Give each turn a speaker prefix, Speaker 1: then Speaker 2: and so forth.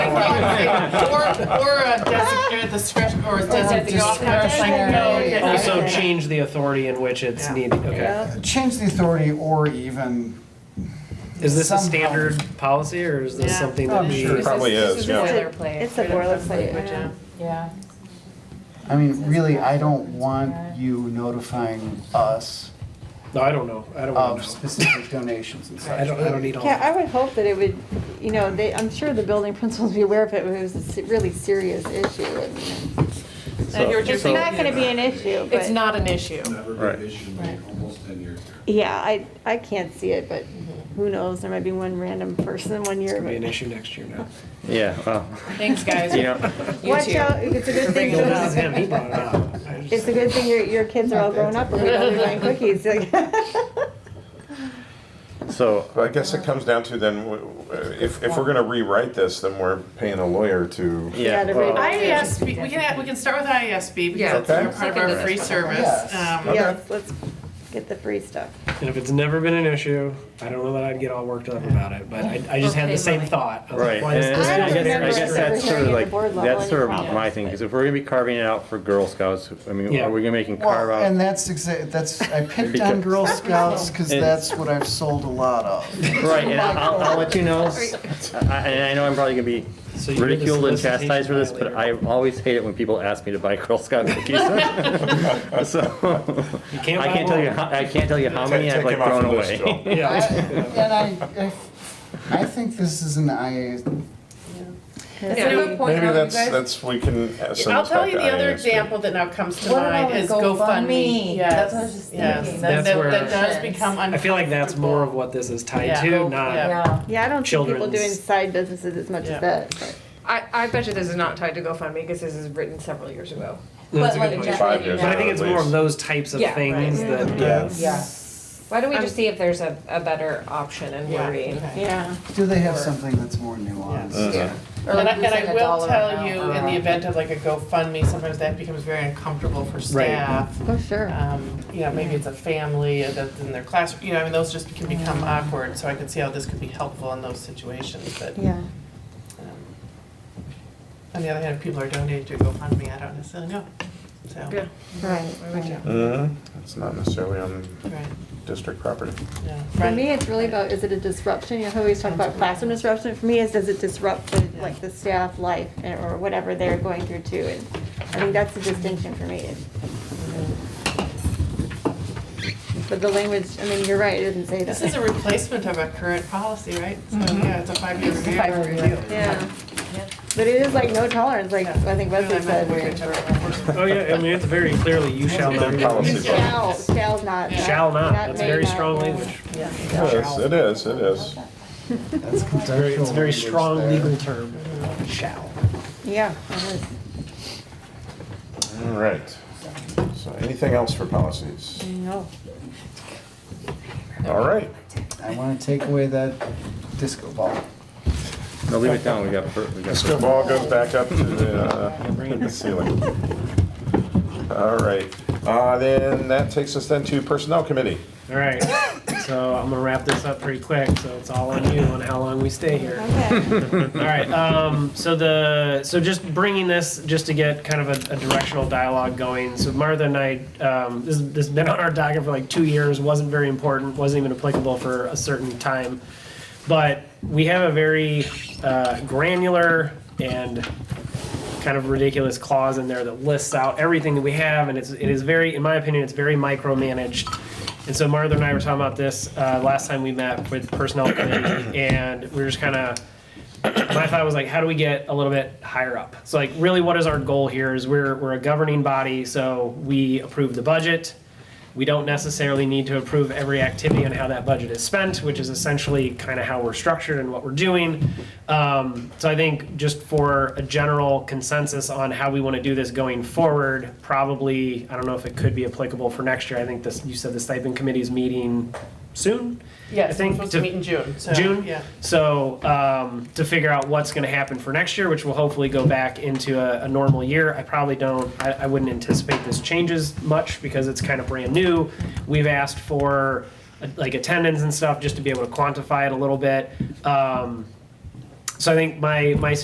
Speaker 1: Or a designate at the discretion, or a
Speaker 2: at the off
Speaker 1: discretion.
Speaker 2: Yeah, yeah, yeah.
Speaker 3: Also change the authority in which it's
Speaker 1: Yeah.
Speaker 3: needed, okay.
Speaker 4: Change the authority or even,
Speaker 3: Is this a
Speaker 4: Somehow.
Speaker 3: standard policy or is this
Speaker 1: Yeah.
Speaker 3: something
Speaker 4: Oh,
Speaker 3: that we?
Speaker 4: sure.
Speaker 2: This
Speaker 5: Probably
Speaker 2: this
Speaker 5: is,
Speaker 2: a
Speaker 5: yeah.
Speaker 2: boilerplate.
Speaker 6: It's a
Speaker 2: Right up the
Speaker 6: boilerplate,
Speaker 2: language,
Speaker 6: yeah.
Speaker 2: Yeah.
Speaker 4: I mean, really, I don't want you notifying us
Speaker 3: No, I don't know, I don't
Speaker 5: Um,
Speaker 4: of
Speaker 3: want to know.
Speaker 4: specific donations and such.
Speaker 3: I don't, I don't need all
Speaker 6: Yeah, I
Speaker 3: that.
Speaker 6: would hope that it would, you know, they, I'm sure the building principals would be aware of it, but it was a se- really serious issue. I mean, It's not gonna be an issue,
Speaker 2: It's
Speaker 6: but,
Speaker 2: not an issue.
Speaker 7: Never
Speaker 5: Right.
Speaker 7: been issued in almost ten years here.
Speaker 6: yeah, I, I can't see it, but who knows, there might be one random person one
Speaker 3: It's
Speaker 6: year.
Speaker 3: gonna be an
Speaker 6: but-
Speaker 3: issue next year now.
Speaker 5: Yeah, well,
Speaker 2: Thanks, guys.
Speaker 5: you know,
Speaker 6: Watch out, it's a good thing,
Speaker 3: No, this is
Speaker 6: you're-
Speaker 3: him, he brought it up. I just-
Speaker 6: it's a good thing your, your kids are all grown up and we don't be buying cookies.
Speaker 5: so
Speaker 8: Well, I guess it comes down to then, w- w- if, if we're gonna rewrite this, then we're paying a lawyer to.
Speaker 5: yeah.
Speaker 6: Yeah,
Speaker 5: well,
Speaker 6: the-
Speaker 1: IASB, E we can, we can start with IASB
Speaker 2: Yeah.
Speaker 1: because it's
Speaker 8: Okay.
Speaker 1: part of our free
Speaker 4: Yes.
Speaker 1: service. Um,
Speaker 6: Yes, let's get the free stuff.
Speaker 3: And if it's never been an issue, I don't know that I'd get all worked up about it, but I, I just had the same thought. I was like,
Speaker 5: Right,
Speaker 3: why is
Speaker 5: and
Speaker 3: this
Speaker 6: I
Speaker 5: I
Speaker 6: don't
Speaker 3: getting
Speaker 5: guess, I
Speaker 6: remember
Speaker 5: guess
Speaker 6: us
Speaker 3: restricted?
Speaker 6: ever hearing at
Speaker 5: that's sort of
Speaker 6: the
Speaker 5: like,
Speaker 6: board level
Speaker 5: that's
Speaker 6: any
Speaker 5: sort of
Speaker 6: problems,
Speaker 5: my thing, because
Speaker 6: but-
Speaker 5: if we're gonna be carving it out for Girl Scouts, I mean,
Speaker 3: Yeah.
Speaker 5: are we gonna making carve
Speaker 4: Well, and
Speaker 5: out?
Speaker 4: that's exactly, that's, I picked on
Speaker 5: Because-
Speaker 4: Girl Scouts because
Speaker 5: And-
Speaker 4: that's what I've sold a lot of.
Speaker 5: Right, and I'll, I'll let you know, I- and I know I'm probably gonna be
Speaker 3: So you're the
Speaker 5: ridiculed and
Speaker 3: solicitation
Speaker 5: chastised for this, but I
Speaker 3: violator.
Speaker 5: always hate it when people ask me to buy Girl Scout cookies. So,
Speaker 3: You can't
Speaker 5: I
Speaker 3: buy
Speaker 5: can't tell you,
Speaker 3: more.
Speaker 5: how I can't tell you how many
Speaker 8: Take-
Speaker 5: I've
Speaker 8: take
Speaker 5: like
Speaker 8: him off
Speaker 5: thrown
Speaker 8: the list,
Speaker 5: away.
Speaker 8: Joe.
Speaker 4: I-
Speaker 3: Yeah.
Speaker 4: And I, I- I think this is an IA,
Speaker 8: Maybe that's, that's, we can uh, send
Speaker 1: I'll
Speaker 8: this
Speaker 1: tell
Speaker 8: back
Speaker 1: you
Speaker 8: to
Speaker 1: the other
Speaker 8: IASB.
Speaker 1: example that now comes to
Speaker 2: What
Speaker 1: mind
Speaker 2: about
Speaker 1: is
Speaker 2: GoFundMe?
Speaker 1: GoFundMe.
Speaker 2: That's what I
Speaker 1: Yes,
Speaker 2: was just
Speaker 1: yes.
Speaker 2: thinking.
Speaker 1: That,
Speaker 3: That's
Speaker 1: that
Speaker 3: where-
Speaker 1: that does become uncomfortable.
Speaker 3: I feel like that's more of what this is tied
Speaker 1: Yeah.
Speaker 3: to,
Speaker 1: Yeah.
Speaker 3: not,
Speaker 6: Yeah, I don't see people doing
Speaker 3: Children's-
Speaker 6: side businesses as much
Speaker 1: Yeah.
Speaker 6: as that. but-
Speaker 9: I, I bet you this is not tied to GoFundMe because this is written several years ago.
Speaker 3: that's a good
Speaker 2: like,
Speaker 3: point.
Speaker 8: Five years
Speaker 3: But I
Speaker 8: out
Speaker 3: think
Speaker 8: at
Speaker 3: it's more of
Speaker 8: least.
Speaker 3: those types of
Speaker 9: Yeah,
Speaker 3: things
Speaker 9: right.
Speaker 3: that,
Speaker 4: Yeah.
Speaker 3: uh,
Speaker 2: Yeah.
Speaker 9: Why don't we just see if there's a, a better option and
Speaker 1: Yeah,
Speaker 9: wording?
Speaker 1: okay.
Speaker 6: Yeah.
Speaker 4: do they have something that's more nuanced?
Speaker 8: Mhm.
Speaker 2: Or
Speaker 1: And I, and
Speaker 2: losing
Speaker 1: I
Speaker 2: a
Speaker 1: will
Speaker 2: dollar
Speaker 1: tell
Speaker 2: amount Uh-huh.
Speaker 1: you,
Speaker 2: or
Speaker 1: in the
Speaker 2: a-
Speaker 1: event of like a GoFundMe, sometimes that becomes very uncomfortable for staff.
Speaker 6: Oh, sure.
Speaker 1: Um, you know, maybe it's a family uh, that's in their classroom, you know, I mean, those just can become awkward, so I can see how this could be helpful in those situations, but.
Speaker 6: Yeah.
Speaker 1: um, On the other hand, if people are donating to GoFundMe, I don't necessarily know, so.
Speaker 9: Yeah.
Speaker 6: Right. right.
Speaker 8: Mhm. It's not necessarily on
Speaker 1: Right,
Speaker 8: district property.
Speaker 1: yeah.
Speaker 6: For
Speaker 1: right.
Speaker 6: me, it's really about, is it a disruption? You know, how we always talk about classroom disruption? For me, is does it disrupt the, like, the staff life and- or whatever they're going through too? And I think that's the distinction for me. But the language, I mean, you're right, it doesn't say that.
Speaker 1: This is a replacement of a current policy, right? So, yeah, it's a five-year review.
Speaker 6: Yeah. But it is like no tolerance, like I think Wesley said.
Speaker 3: oh yeah, I mean, it's very clearly you shall not.
Speaker 8: Their
Speaker 3: do
Speaker 8: policy.
Speaker 3: this.
Speaker 6: Shall, shall's not.
Speaker 3: Shall not, that's
Speaker 6: may
Speaker 3: very
Speaker 6: not,
Speaker 3: strong
Speaker 6: yeah.
Speaker 3: language.
Speaker 8: Yes, it is, it is.
Speaker 4: That's
Speaker 3: Very-
Speaker 4: conceptual
Speaker 3: It's a very
Speaker 4: language
Speaker 3: strong
Speaker 4: there.
Speaker 3: legal term, shall.
Speaker 6: Yeah. it is.
Speaker 8: All right. So anything else for policies?
Speaker 6: No.
Speaker 8: All right.
Speaker 4: I want to take away that disco ball.
Speaker 5: No, leave it down, we got. fur- we got
Speaker 8: Disco
Speaker 5: fur-
Speaker 8: ball goes back up to the, uh, the ceiling. All right. Uh, Then that takes us then to Personnel Committee.
Speaker 3: All right, so I'm gonna wrap this up pretty quick, so it's all on you on how long we stay here.
Speaker 6: Okay.
Speaker 3: All right. Um, so the so just bringing this just to get kind of a, a directional dialogue going. So Martha and I, um, this, this has been on our docket for like two years. wasn't very important. wasn't even applicable for a certain time, but we have a very uh, granular and kind of ridiculous clause in there that lists out everything that we have, and it's it is very, in my opinion, it's very micromanaged. And so Martha and I were talking about this uh, last time we met with personnel committee, and we were just kind of my thought was like, how do we get a little bit higher up? So like, really, what is our goal here? Is we're we're a governing body, so we approve the budget. We don't necessarily need to approve every activity and how that budget is spent, which is essentially kind of how we're structured and what we're doing. Um, so I think just for a general consensus on how we want to do this going forward, probably I don't know if it could be applicable for next year. I think this you said the stipend committee is meeting soon.
Speaker 1: Yes,
Speaker 3: I
Speaker 1: we're
Speaker 3: think
Speaker 1: supposed to
Speaker 3: to-
Speaker 1: meet in June, so.
Speaker 3: June?
Speaker 1: Yeah.
Speaker 3: So um, to figure out what's going to happen for next year, which will hopefully go back into a, a normal year. I probably don't. I, I wouldn't anticipate this changes much because it's kind of brand new. We've asked for uh, like attendance and stuff just to be able to quantify it a little bit. Um, so I think my my